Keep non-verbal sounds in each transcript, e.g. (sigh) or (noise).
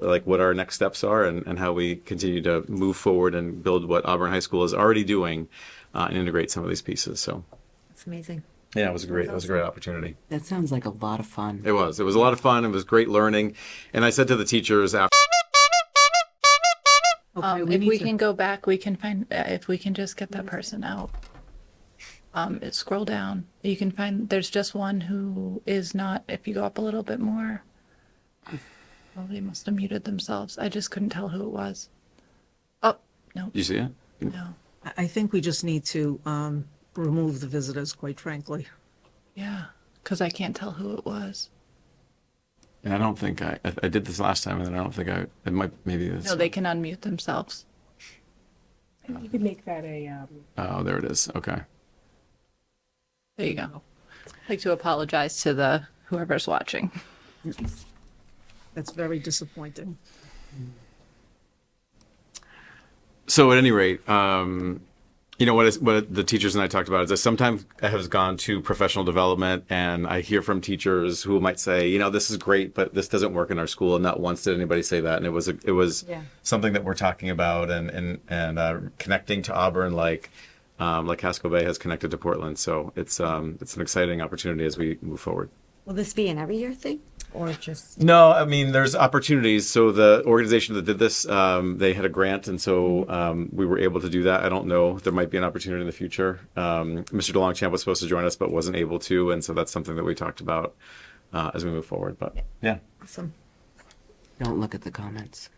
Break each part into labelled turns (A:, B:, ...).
A: like what our next steps are and, and how we continue to move forward and build what Auburn High School is already doing uh, and integrate some of these pieces. So
B: It's amazing.
A: yeah, it was a great, it was a great opportunity.
C: That sounds like a lot of fun.
A: It was, it was a lot of fun. It was great learning. And I said to the teachers after,
C: Okay,
B: Um, if we can go back, we can find, uh, if we can just get that person out. Um, it- scroll down, you can find, there's just one who is not, if you go up a little bit more. Oh, they must have muted themselves. I just couldn't tell who it was. Oh, no,
A: you see it?
B: no,
D: I- I think we just need to um, remove the visitors, quite frankly.
B: yeah, because I can't tell who it was.
A: And I don't think I, I- I did this last time and then I don't think I, it might, maybe it's,
B: No, they can unmute themselves.
E: You could make that a, um,
A: oh, there it is. Okay.
B: There you go. I'd like to apologize to the whoever's watching. (laughs)
D: That's very disappointing.
A: so at any rate, um, you know what is what the teachers and I talked about is I sometimes have gone to professional development and I hear from teachers who might say, you know, this is great, but this doesn't work in our school. And not once did anybody say that. And it was a, it was something that we're talking about and and and uh, connecting to Auburn like um, like Casco Bay has connected to Portland. So it's um, it's an exciting opportunity as we move forward.
F: Will this be an every year thing or just?
A: No, I mean, there's opportunities. So the organization that did this, um, they had a grant, and so um, we were able to do that. I don't know. There might be an opportunity in the future. Um, Mr. DeLongchamp was supposed to join us, but wasn't able to, and so that's something that we talked about uh, as we move forward. But yeah,
F: Awesome.
C: Don't look at the comments.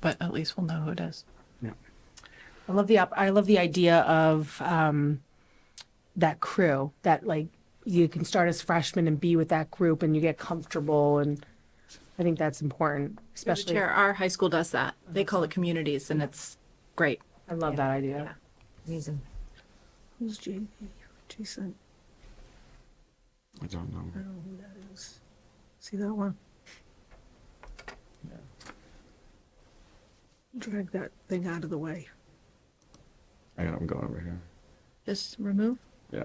B: But at least we'll know who it is.
E: I love the, op- I love the idea of, um, that crew, that like, you can start as freshmen and be with that group and you get comfortable and I think that's important,
B: Through the
E: especially,
B: chair, our high school does that. They call it communities, and it's great.
E: I love that idea.
F: Amazing.
D: Who's J- Jason?
A: I don't know.
D: See that one? Drag that thing out of the way.
A: I got him going over here.
B: Just remove.
A: Yeah.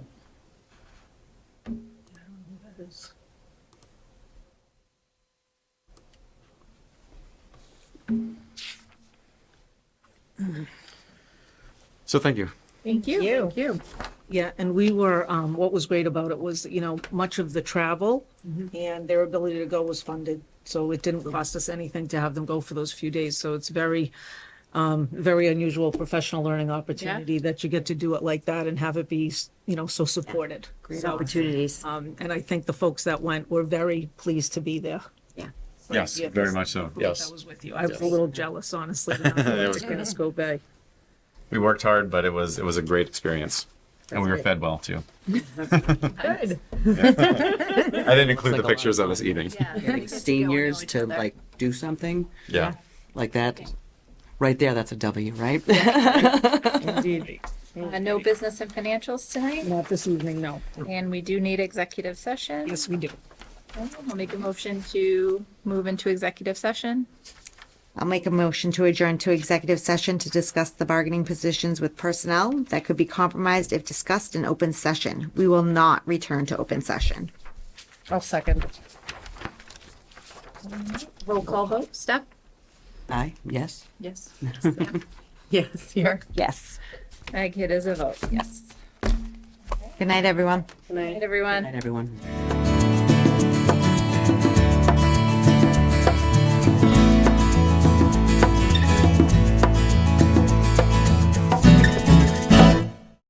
A: So thank you.
E: Thank you. Thank you.
D: Yeah, and we were, um, what was great about it was, you know, much of the travel and their ability to go was funded. So it didn't cost us anything to have them go for those few days. So it's very, um, very unusual professional learning opportunity that you get to do it like that and have it be, you know, so supported.
F: Great
D: So,
F: opportunities.
D: Um, and I think the folks that went were very pleased to be there.
F: Yeah.
A: Yes,
D: Yeah,
A: very
D: this-
A: much so.
D: I
A: Yes.
D: was with you. I was a little jealous, honestly.
A: (laughs)
D: when I went To Casco Bay.
A: We worked hard, but it was it was a great experience. and we were fed well
C: (laughs)
A: too. (laughs)
D: Good.
A: I didn't include the
C: like a lot
A: pictures of us eating.
B: (laughs)
C: Like seniors to like do something
A: Yeah.
C: like that. Right there, that's a W, (laughs) right?
D: Indeed.
G: Uh, no business and financials tonight,
D: Not this evening, no.
G: and we do need executive session.
D: Yes, we do.
G: I'll make a motion to move into executive session.
F: I'll make a motion to adjourn to executive session to discuss the bargaining positions with personnel that could be compromised if discussed in open session. We will not return to open session.
E: I'll second.
G: Roll call vote. Steph?
C: Aye, yes.
B: Yes.
C: Yes.
G: Here.
F: Yes.
G: Meg, it is a vote, yes.
F: Good night, everyone.
G: Good night, everyone.
C: Night, everyone.